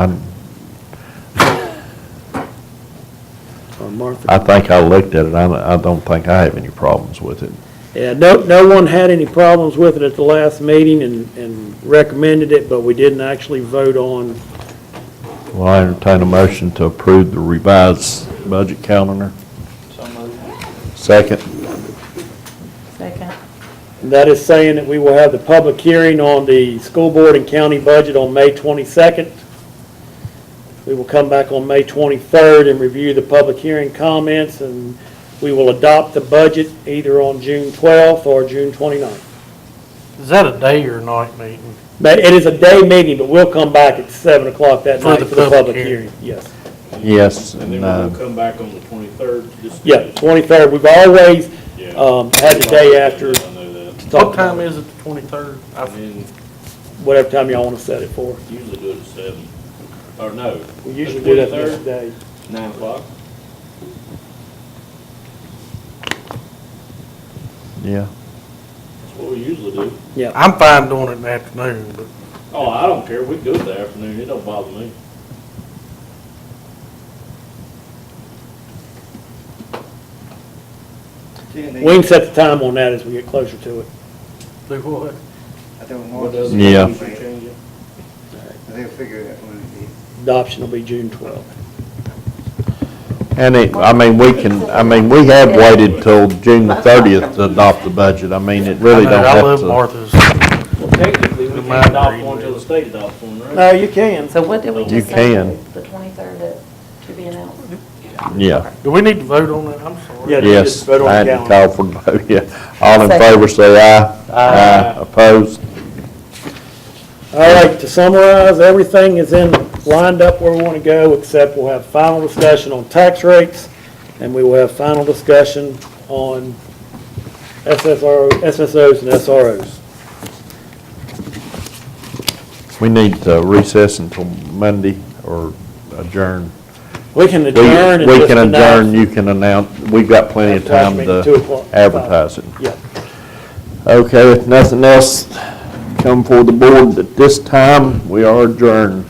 I or Uh, Martha. I think I looked at it, I, I don't think I have any problems with it. Yeah, no, no one had any problems with it at the last meeting and, and recommended it, but we didn't actually vote on. Well, I entertain a motion to approve the revised budget calendar. Second. Second. That is saying that we will have the public hearing on the school board and county budget on May 22nd. We will come back on May 23rd and review the public hearing comments, and we will adopt the budget either on June 12th or June 29th. Is that a day or night meeting? But it is a day meeting, but we'll come back at 7 o'clock that For night the for the public public hearing. hearing. Yes. Yes, And then and, we'll uh, come back on the 23rd. just- Yeah, 23rd, we've always Yeah. um, had the day after I to know that. talk about What time it, is it, the 23rd? I I- mean, whatever time y'all want to set it for. usually do it at 7, or no. We the usually do that 23rd, next day. 9 o'clock. yeah. That's what we usually do. Yeah, I'm fine doing it in the afternoon, but Oh, I don't care, we can do it the afternoon, it don't bother me. we can set the time on that as we get closer to it. do what? I don't What want does to. it Yeah. matter if you change it? They'll figure it out when it is. Adoption will be June 12th. And it, I mean, we can, I mean, we have waited till June the thirtieth to adopt the budget. I mean, it really I know, don't I love have Martha's. Well, technically, we The can't minor adopt reading one till the is- state adopts one, right? you can. So what did we You just say? can. The 23rd at- to be announced? to, yeah. Do we need to vote on that? I'm sorry. Yeah. you just Yes, vote on I had the to call calendar. for, the vote. yeah. All in Second. favor, say aye. Aye. Opposed? All right, to summarize, everything is in, lined up where we want to go, except we'll have final discussion on tax rates, and we will have final discussion on SSRO, SSOs and SROs. We need to recess until Monday or adjourn. We can We adjourn and we just can announce- adjourn, you can announce, we've got plenty of Flash time meeting, two to o'clock, five. advertise it. Yeah. Okay, if nothing else come for the board at this time, we are adjourned.